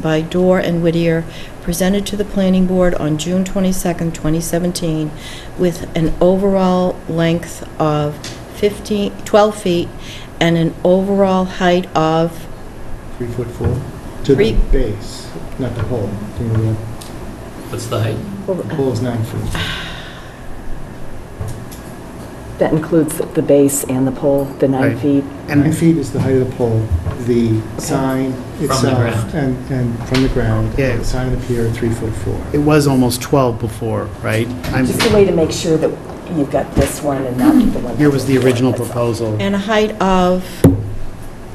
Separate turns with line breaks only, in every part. by Dorr and Whittier, presented to the planning board on June 22nd, 2017, with an overall length of 15, 12 feet and an overall height of,
Three foot four, to
Three-
the base, not the hole. You know,
What's the height?
The
uh,
hole is nine feet.
That includes the base and the pole, the nine
Right.
feet.
Nine feet is the height of the pole, the sign
the ground.
itself, and, and from the ground.
Yeah.
The sign of the pier, three foot four.
It was almost 12 before, right? I'm-
Just a way to make sure that you've got this one and not the one.
Here was the original
That's all.
proposal.
and a height of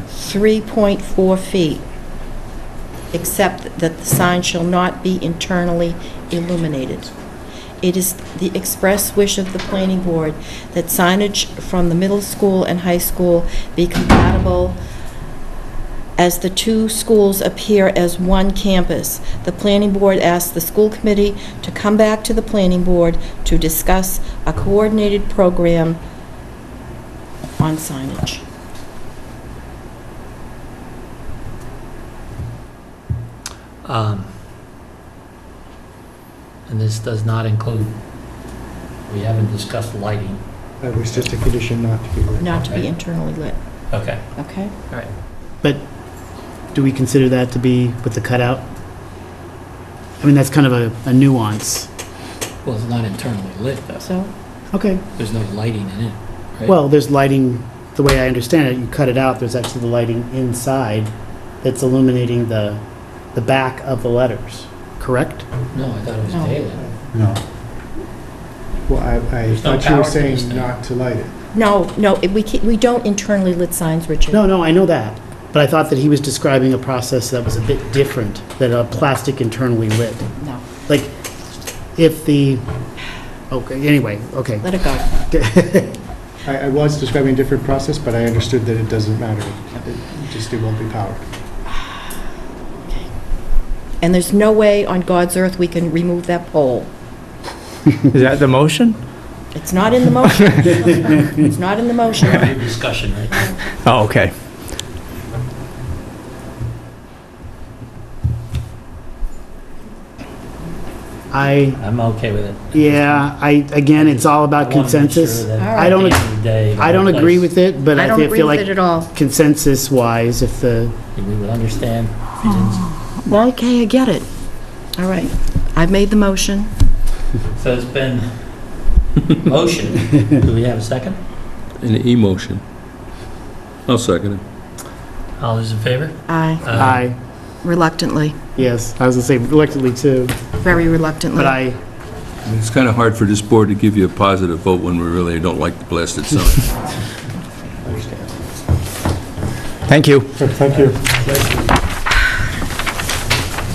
3.4 feet, except that the sign shall not be internally illuminated. It is the express wish of the planning board that signage from the middle school and high school be compatible as the two schools appear as one campus. The planning board asks the school committee to come back to the planning board to discuss a coordinated program on signage.
Um, And this does not include, we haven't discussed lighting.
That was just a condition not to be written.
not to be internally lit,
Okay.
okay?
Do we consider that to be with the cutout? I mean, that's kind of a- a nuance.
Well, it's not internally lit, though.
So,
Okay,
There's no lighting in it, right?
well, there's lighting, the way I understand it, you cut it out, there's actually the lighting inside that's illuminating the, the back of the letters, correct?
No, I thought it was
No.
daylit.
No. Well, I, I
There's no
thought you were
power to this
saying
thing.
not to light it.
no, no, it- we can't, we don't internally lit signs, Richard.
No, no, I know that, but I thought that he was describing a process that was a bit different, than a plastic internally lit.
No,
Like, if the, okay, anyway, okay.
let it go.
I, I was describing a different process, but I understood that it doesn't matter. It just, it won't be powered.
And there's no way on God's earth we can remove that pole.
Is that the motion?
It's not in the motion. It's not in the motion.
Any discussion right now?
Oh, okay.
I,
I'm okay with it.
yeah, I, again, it's all about consensus. I don't ag- I don't agree with it, but
I
I
don't
feel-
agree
feel
with it
like
at all.
consensus-wise, if the,
We would understand if you didn't
Mm.
Okay, I get it. All right, I've made the motion.
So it's been motion. Do we have a second?
An emotion. I'll second it.
All those in favor? Uh,
I
Uh-huh.
I,
reluctantly,
yes, I was gonna say reluctantly too,
very reluctantly.
but I,
It's kind of hard for this board to give you a positive vote when we really don't like the blasted sign.
Thank you.
Thank you.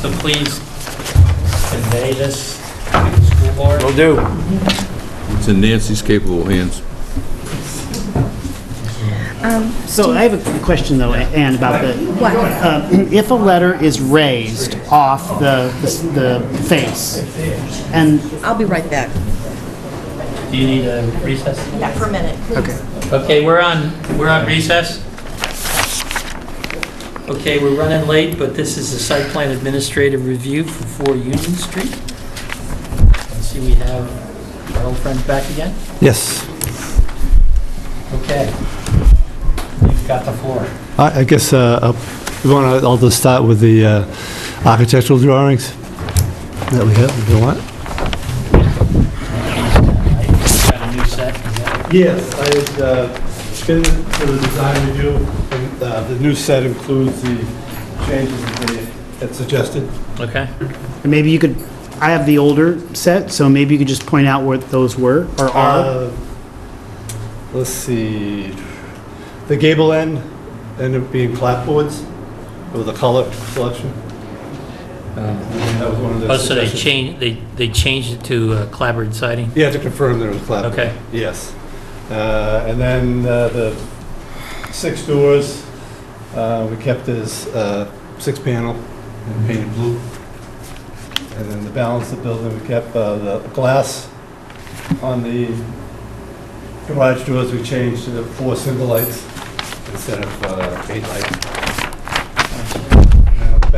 So please convey this to the school board.
Will do.
It's in Nancy's capable hands.
so I have a question though, Ann, about the,
What?
uh, if a letter is raised off the, the face, and,
I'll be right back.
Do you need a recess?
Yeah, for a minute.
okay.
Okay, we're on, we're on recess. Okay, we're running late, but this is the site plan administrative review for 4 Union Street. I see we have our old friends back again.
Yes,
Okay. You've got the floor.
I I guess, uh, uh, you want to, I'll just start with the uh, architectural drawings that we have, if you want.
Got a new set.
Yes, I had uh, been to the design review, and uh, the new set includes the changes that they had suggested.
Okay.
And maybe you could, I have the older set, so maybe you could just point out what those were, or are.
Uh, Let's see, the gable end ended up being clapboards with a color selection. That was one of the
Oh, so they
suggestions.
changed, they, they changed it to uh, clapboard siding?
You have to confirm there was clapboard.
Okay.
Yes. Uh, And then uh, the six doors, uh, we kept as uh, six panel and painted blue. And then the balance of the building, we kept uh, the glass on the garage doors, we changed to the four single lights instead of uh, eight lights.